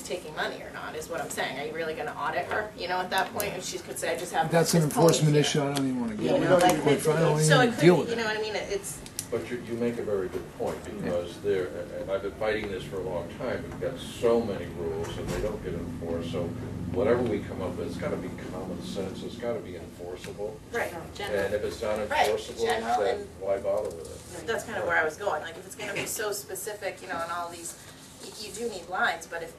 taking money or not, is what I'm saying. Are you really gonna audit her, you know, at that point? And she could say, I just have. That's an this pony enforcement here. issue, I don't even wanna You get know, into, like, quite it- frankly, I don't so even it wanna could, deal with you know it. what I mean? It- It's, But you, you make a very good point, because there, and I've been fighting this for a long time, we've got so many rules and they don't get enforced, so whatever we come up with, it's gotta be common sense, it's gotta be enforceable. right, And if it's not Right, enforceable, general then and- why bother with it? that's kind of where I was going. Like, if it's gonna be so specific, you know, and all these, y- you do need lines, but if,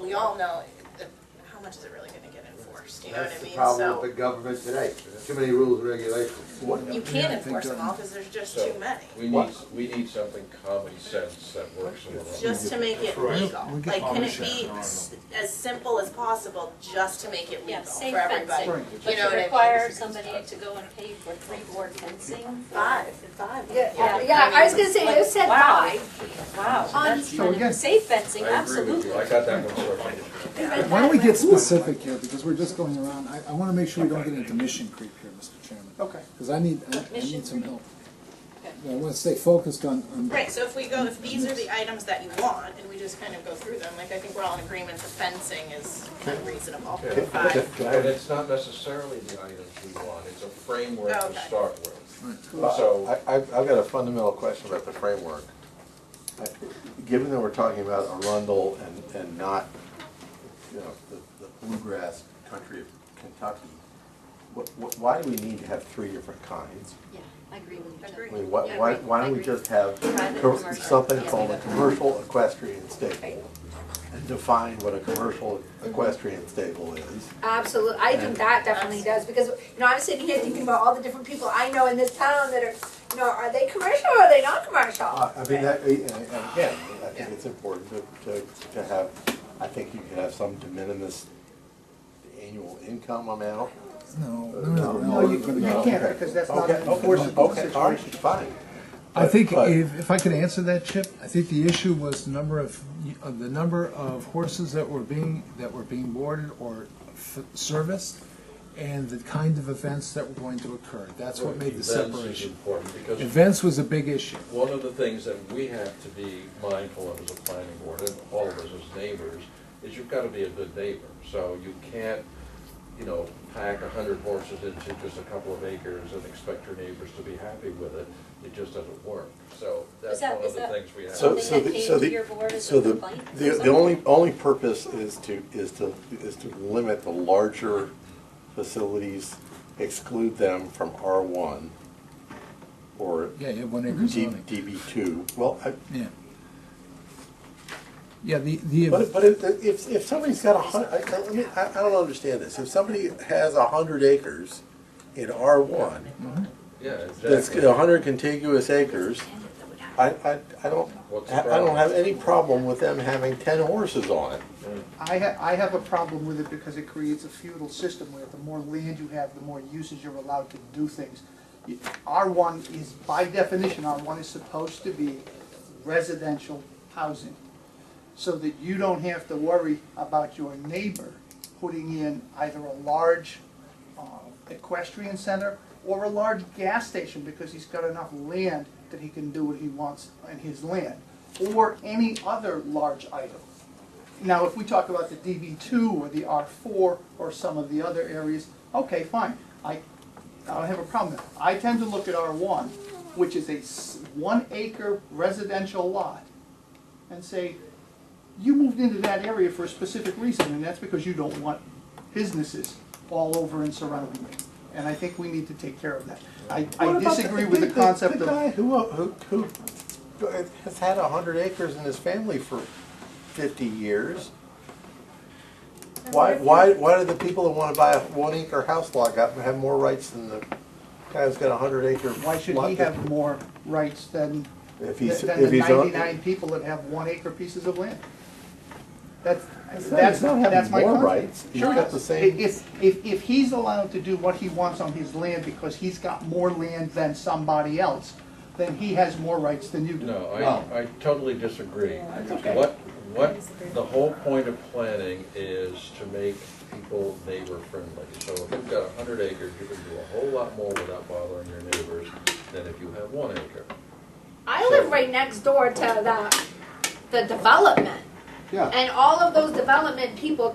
we all know, that- how much is it really gonna get enforced, you know what I That's the mean? problem with So, the government today, too many rules and regulations. you Yeah, I can't think, enforce them um, all, because there's just So, too many. We need, we need something common sense that works in the long just to make it legal. We get Like, can it published be s- as simple as possible just to make it Yeah, legal safe for everybody? fencing. You But know to what I require mean? somebody to go and pay for three board fencing? Five, five. Yeah, yeah, I was gonna say, you said Wow. five. Wow, that's So kind again- of safe fencing, I agree with you, absolutely. I got that one sorted. Why don't we get specific here, because we're just going around, I, I wanna make sure we don't get into mission creep here, Mr. Chairman. Okay. Cause I need, I, I Mission need some help. Okay. I wanna stay focused on, on. Right, so if we go, if these are the items that you want, and we just kind of go through them, like, I think we're all in agreement that fencing is unreasonable. Five, And it's not necessarily the items we want, it's a framework to Okay. start with. I, So, I've, I've got a fundamental question about the framework. I- Given that we're talking about Arundel and, and not, you know, the, the bluegrass country of Kentucky, what, what, why do we need to have three different kinds? Yeah, I agree with you. Chuck. Agree. I mean, why, Yeah, why, agree. why don't we Agree. just have Private, co- commercial. something Yeah. called a commercial equestrian stable? And define what a commercial equestrian stable is. Absolutely, I think that definitely does, because, you know, I'm sitting here thinking about all the different people I know in this town that are, you know, are they commercial or are they not commercial? Uh, I I mean, that, and and again, I think it's important to, to, to have, I think you could have some de minimis annual income amount. Uh, No, no, no, no. No, we're gonna go- Okay. Okay, okay, Okay, all right, fine. I think But- if, if I could answer that, Chip, I think the issue was the number of, of the number of horses that were being, that were being boarded or f- serviced and the kind of events that were going to occur. That's what made the events is separation. important, because Events was a big issue. One of the things that we have to be mindful of as a planning board, and all of us as neighbors, is you've gotta be a good neighbor. So you can't, you know, pack a hundred horses into just a couple of acres and expect your neighbors to be happy with it. It just doesn't work. So that's Is that- one of is the that- things we have. So, Something so that the, came so to the, your board as so a the, complaint or the, the something? only, only purpose is to, is to, is to limit the larger facilities, exclude them from R one or Yeah, yeah, one acre zoning. DB two. Well, I, Yeah. Yeah, the, the. But, but if, if, if somebody's got a hun, I, I, let me- I I don't understand this, if somebody has a hundred acres in R one, Yeah, that's exactly. a hundred contiguous acres, I, I, I don't, What's the I I problem? don't have any problem with them having ten horses on it. I ha- I have a problem with it because it creates a feudal system where the more land you have, the more uses you're allowed to do things. Y- R1 is, by definition, R1 is supposed to be residential housing. So that you don't have to worry about your neighbor putting in either a large uh, equestrian center or a large gas station because he's got enough land that he can do what he wants on his land. Or any other large item. Now, if we talk about the DB two or the R four or some of the other areas, okay, fine, I, I don't have a problem there. I tend to look at R one, which is a s- one acre residential lot, and say, you moved into that area for a specific reason, and that's because you don't want businesses all over and surrounding it. And I think we need to take care of that. I, What I about disagree with the concept The of, guy who, who, who has had a hundred acres in his family for fifty years. Why, why, why do the people that wanna buy a one acre house lot got, have more rights than the guy who's got a hundred acre? why should lot he that- have more rights than If than he's, than if the he's on. ninety-nine people that have one acre pieces of land. That's, He's not- that's, he's not having that's my more concept. rights. He's Sure got is. the same- If, if, if he's allowed to do what he wants on his land because he's got more land than somebody else, then he has more rights than you do. No, I, I totally disagree. What, what, the whole point of planning is to make people neighbor friendly. So if you've got a hundred acres, you can do a whole lot more without bothering your neighbors than if you have one acre. I live right next door to the, the development, Yeah. And all of those development people